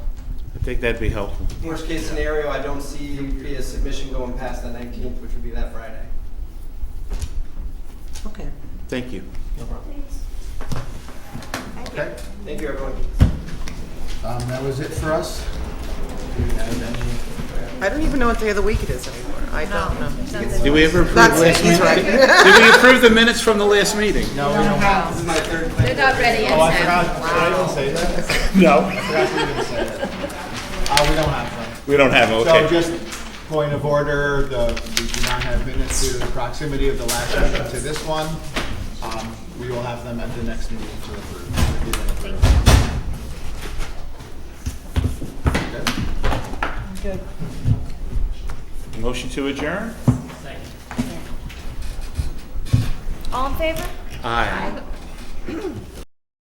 think that'd be helpful. Worst case scenario, I don't see a submission going past the 19th, which would be that Friday. Okay. Thank you. No problem. Okay, Thank you, everyone. um, that was it for us. I don't even know what day of the week it is anymore. I don't know. Did we ever approve That's it, last he's meeting? right. Did we approve the minutes from the last meeting? No, we don't have. This is my third plan. They're not ready yet, Oh, I Sam. forgot, did I even say that? I No. forgot to even say that. Uh, we don't have We don't have, them, them. So okay. just point of order, the, we do not have minutes due to the proximity of the last meeting to this one. Um, we will have them at the next meeting to approve. if you don't approve. Okay. Motion to adjourn? All in favor? Aye.